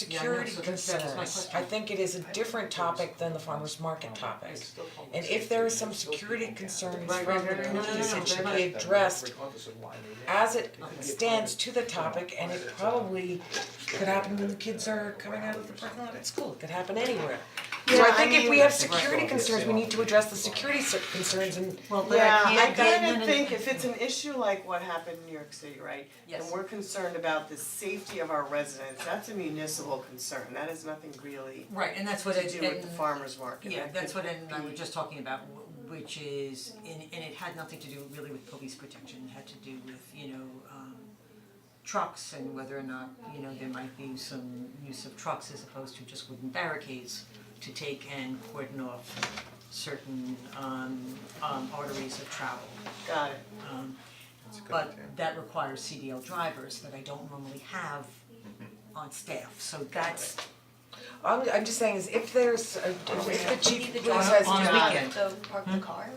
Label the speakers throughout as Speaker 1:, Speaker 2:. Speaker 1: security
Speaker 2: so that's- that was my
Speaker 1: concerns, I
Speaker 2: question.
Speaker 1: think it is a different topic than the farmer's market topic. And if there is some security concerns
Speaker 2: Right,
Speaker 1: from
Speaker 2: right, right,
Speaker 1: the
Speaker 2: right, no, no,
Speaker 1: police,
Speaker 2: no,
Speaker 1: it should
Speaker 2: very
Speaker 1: be
Speaker 2: much.
Speaker 1: addressed as it stands to the topic and it probably could happen when the kids are coming out of the parking lot at school, it could happen anywhere. So I
Speaker 3: Yeah, I
Speaker 1: think if we
Speaker 3: mean-
Speaker 1: have security concerns, we need to address the security cer- concerns and
Speaker 2: Well, but
Speaker 3: Yeah,
Speaker 2: I
Speaker 3: I
Speaker 2: can't get
Speaker 3: kind of
Speaker 2: in
Speaker 3: think
Speaker 2: and-
Speaker 3: if it's an issue like what happened in New York City, right?
Speaker 2: Yes.
Speaker 3: And we're concerned about the safety of our residents, that's a municipal concern, that has nothing really
Speaker 2: Right, and that's what
Speaker 3: to
Speaker 2: it,
Speaker 3: do with the
Speaker 2: and-
Speaker 3: farmer's market.
Speaker 2: Yeah,
Speaker 3: That
Speaker 2: that's
Speaker 3: could
Speaker 2: what Ed and I were
Speaker 3: be-
Speaker 2: just talking about, wh- which is, and and it had nothing to do really with police protection, it had to do with, you know, um trucks and whether or not, you know, there might be some use of trucks as opposed to just wooden barricades to take and cordon off certain um um arteries of travel.
Speaker 3: Got it,
Speaker 2: Um but that requires CDL drivers that I don't normally have
Speaker 3: Mm-hmm.
Speaker 2: on staff, so that's
Speaker 1: I'm I'm just saying is if there's a, if the chief
Speaker 4: Leave the
Speaker 1: police
Speaker 4: driver
Speaker 1: has
Speaker 2: on
Speaker 1: to-
Speaker 2: the
Speaker 4: drive,
Speaker 2: weekend.
Speaker 4: So park the car?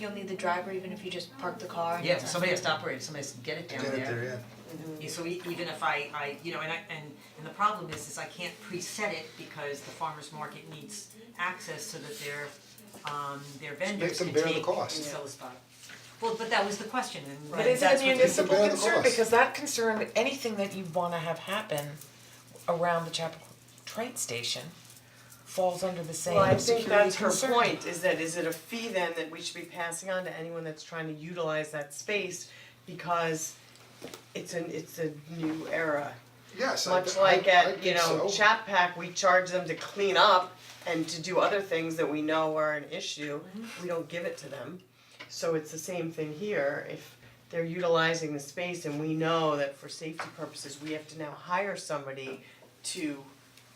Speaker 4: You'll need the driver even if you just park the car and
Speaker 2: Yeah,
Speaker 4: it's not-
Speaker 2: somebody has to operate, it, somebody has to get it down there.
Speaker 5: Get it there, yeah.
Speaker 2: Yeah, so e- even if I I, you know, and I and and the problem is is I can't preset it because the farmer's market needs access so that their um their vendors
Speaker 5: them
Speaker 2: can
Speaker 5: bear the
Speaker 2: take and
Speaker 5: cost.
Speaker 2: sell the spot. Well, but that was the question and
Speaker 1: But
Speaker 2: and
Speaker 1: is it
Speaker 2: that's
Speaker 1: a
Speaker 2: what we-
Speaker 1: municipal
Speaker 5: Bear the
Speaker 1: concern,
Speaker 5: cost.
Speaker 1: because that concern, anything that you wanna have happen around the Chapel train station falls under the same
Speaker 3: well, I
Speaker 1: security
Speaker 3: think that's her
Speaker 1: concern.
Speaker 3: point, is that is it a fee then that we should be passing on to anyone that's trying to utilize that space? Because it's an, it's a new era,
Speaker 5: Yes, I, I, I think
Speaker 3: Much
Speaker 5: so.
Speaker 3: like at, you know, Chat Pack, we charge them to clean up and to do other things that we know are an issue,
Speaker 2: Mm-hmm.
Speaker 3: we don't give it to them. So it's the same thing here, if they're utilizing the space and we know that for safety purposes, we have to now hire somebody to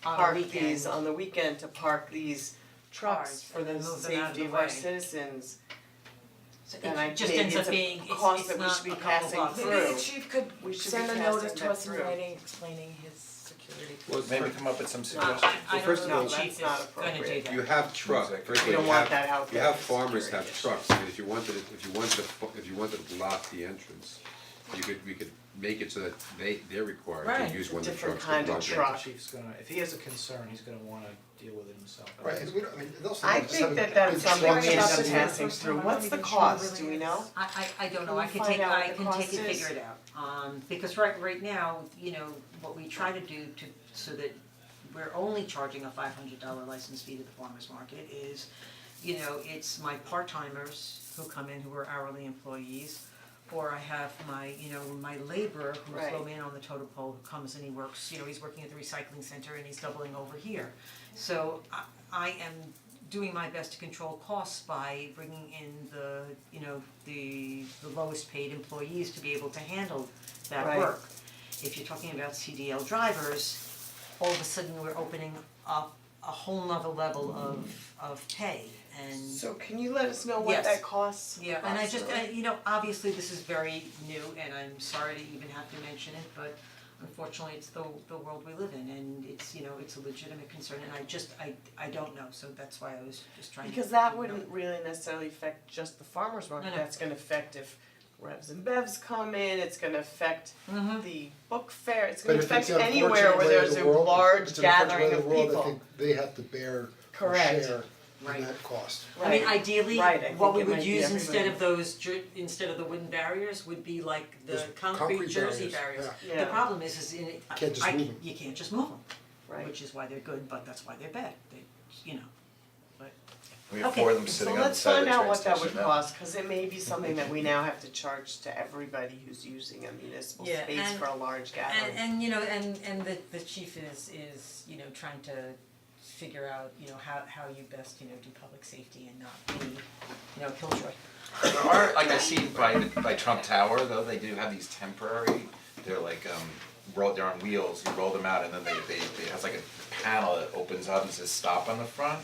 Speaker 2: On the
Speaker 3: park um,
Speaker 2: weekend.
Speaker 3: these, on the weekend, to park these trucks
Speaker 2: Cars,
Speaker 3: for
Speaker 2: and
Speaker 3: the
Speaker 2: then move them out of
Speaker 3: safety
Speaker 2: the
Speaker 3: of our
Speaker 2: way.
Speaker 3: citizens.
Speaker 2: So
Speaker 3: And I
Speaker 2: it just
Speaker 3: think
Speaker 2: ends
Speaker 3: it's
Speaker 2: up
Speaker 3: a
Speaker 2: being, it's
Speaker 3: cost
Speaker 2: it's
Speaker 3: that we
Speaker 2: not
Speaker 3: should be
Speaker 2: a couple
Speaker 3: passing
Speaker 2: bucks.
Speaker 3: through.
Speaker 1: Maybe the chief could
Speaker 3: We should
Speaker 1: send
Speaker 3: be
Speaker 1: a
Speaker 3: passing
Speaker 1: notice to
Speaker 3: that
Speaker 1: us in
Speaker 3: through.
Speaker 1: writing explaining his security.
Speaker 6: Maybe come up with some
Speaker 2: Uh,
Speaker 6: suggestions.
Speaker 2: I I
Speaker 7: Well, first
Speaker 2: don't know
Speaker 7: of all-
Speaker 2: if the
Speaker 3: No, that's
Speaker 2: chief is
Speaker 3: not
Speaker 2: gonna do
Speaker 3: appropriate.
Speaker 2: that.
Speaker 7: You have trucks,
Speaker 3: We
Speaker 7: frankly, you
Speaker 3: don't want that out
Speaker 7: have, you
Speaker 3: there
Speaker 7: have
Speaker 3: as a
Speaker 7: farmers have
Speaker 3: security
Speaker 7: trucks, because you wanted, it- if you wanted to, fu- if you wanted to block the entrance, you could, we could make it so that they, they're required
Speaker 1: Right,
Speaker 7: to use one of the
Speaker 3: different
Speaker 7: trucks to
Speaker 3: kind of
Speaker 7: block the
Speaker 3: truck.
Speaker 7: entrance.
Speaker 8: Chief's gonna, if he has a concern, he's gonna wanna deal with it himself.
Speaker 5: Right, and we don't, I mean, and also,
Speaker 3: I
Speaker 5: just
Speaker 3: think
Speaker 5: having
Speaker 3: that that's
Speaker 5: big
Speaker 3: something we
Speaker 5: trucks
Speaker 3: end
Speaker 5: is-
Speaker 3: up passing through, what's the cost, do we know?
Speaker 2: I I I don't know,
Speaker 3: Can
Speaker 2: I
Speaker 3: you
Speaker 2: can
Speaker 3: find
Speaker 2: take,
Speaker 3: out what
Speaker 2: I
Speaker 3: the
Speaker 2: can
Speaker 3: cost
Speaker 2: take and
Speaker 3: is?
Speaker 2: figure it out, um, because right right now, you know, what we try to do to, so that we're only charging a five hundred dollar license fee to the farmer's market is, you know, it's my part timers who come in who are hourly employees, or I have my, you know, my laborer who's
Speaker 3: Right.
Speaker 2: low man on the totem pole who comes and he works, you know, he's working at the recycling center and he's doubling over here. So I I am doing my best to control costs by bringing in the, you know, the the lowest paid employees to be able to handle that
Speaker 3: Right.
Speaker 2: work. If you're talking about CDL drivers, all of a sudden we're opening up a whole nother level of of pay and
Speaker 3: So can you let us know what
Speaker 2: Yes.
Speaker 3: that costs?
Speaker 2: yeah, and I just,
Speaker 3: approximately?
Speaker 2: I, you know, obviously this is very new and I'm sorry to even have to mention it, but unfortunately it's the the world we live in and it's, you know, it's a legitimate concern and I just, I I don't know, so that's why I was just trying to.
Speaker 3: Because that wouldn't really necessarily affect just the farmer's
Speaker 2: No,
Speaker 3: market,
Speaker 2: no.
Speaker 3: that's gonna affect if revs and bevs come in, it's gonna affect
Speaker 2: Mm-hmm.
Speaker 3: the book fair, it's
Speaker 5: But
Speaker 3: gonna
Speaker 5: if it's
Speaker 3: affect
Speaker 5: the
Speaker 3: anywhere
Speaker 5: unfortunate
Speaker 3: where
Speaker 5: way of
Speaker 3: there's
Speaker 5: the
Speaker 3: a
Speaker 5: world,
Speaker 3: large
Speaker 5: it's an unfortunate
Speaker 3: gathering
Speaker 5: way
Speaker 3: of people.
Speaker 5: of the world, I think they have to bear or
Speaker 3: Correct.
Speaker 5: share
Speaker 2: Right.
Speaker 5: in that cost.
Speaker 2: I mean, ideally,
Speaker 3: Right, I
Speaker 2: what we
Speaker 3: think it
Speaker 2: would
Speaker 3: might be
Speaker 2: use instead of
Speaker 3: everybody.
Speaker 2: those jer- instead of the wooden barriers would be like the
Speaker 5: Those
Speaker 2: concrete
Speaker 5: concrete
Speaker 2: jersey
Speaker 5: barriers,
Speaker 2: barriers.
Speaker 3: yeah. Yeah.
Speaker 2: The problem is, is in it, I,
Speaker 5: Can't just
Speaker 2: I-
Speaker 5: move 'em.
Speaker 2: you can't just move them,
Speaker 3: Right,
Speaker 2: which is why they're good, but that's why they're bad, they, you know, but.
Speaker 6: We have
Speaker 2: Okay,
Speaker 6: four of them
Speaker 3: so
Speaker 6: sitting on the
Speaker 3: let's
Speaker 6: side of
Speaker 3: find
Speaker 6: the
Speaker 3: out
Speaker 6: train
Speaker 3: what that
Speaker 6: station
Speaker 3: would
Speaker 6: now.
Speaker 3: cost, cause it may be something that we now have to charge to everybody who's using a municipal
Speaker 2: Yeah,
Speaker 3: space
Speaker 2: and-
Speaker 3: for a large gathering.
Speaker 2: And and you know, and and the the chief is is, you know, trying to figure out, you know, how how you best, you know, do public safety and not be, you know, killjoy.
Speaker 6: There are, like I see by the- by Trump Tower though, they do have these temporary, they're like um roll, they're on wheels, you roll them out and then they they they it has like a panel that opens up and says stop on the front.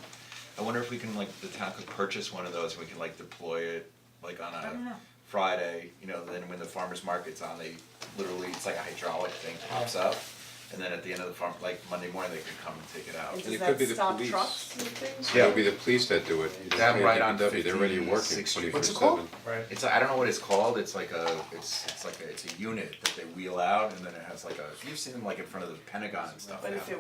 Speaker 6: I wonder if we can like, the town could purchase one of those and we can like deploy it like on
Speaker 2: don't know.
Speaker 6: a Friday, you know, then when the farmer's market's on, they literally, it's like a hydraulic thing pops up. and then at the end of the farm, like Monday morning, they could come and take it out.
Speaker 3: And
Speaker 7: And it
Speaker 3: does
Speaker 7: could be
Speaker 3: that
Speaker 7: the
Speaker 3: stop
Speaker 7: police.
Speaker 3: trucks and things?
Speaker 7: It would be the police that do it, you
Speaker 6: That
Speaker 7: don't pay
Speaker 6: right on
Speaker 7: DPW, they're already
Speaker 6: 15,
Speaker 7: working
Speaker 6: six-
Speaker 7: twenty-four seven.
Speaker 6: what's it called?
Speaker 8: Right.
Speaker 6: It's I don't know what it's called. It's like a it's it's like a, it's a unit that they wheel out and then it has like a you've seen them like in front of the Pentagon and stuff.
Speaker 3: But
Speaker 6: they
Speaker 3: if
Speaker 6: have
Speaker 3: it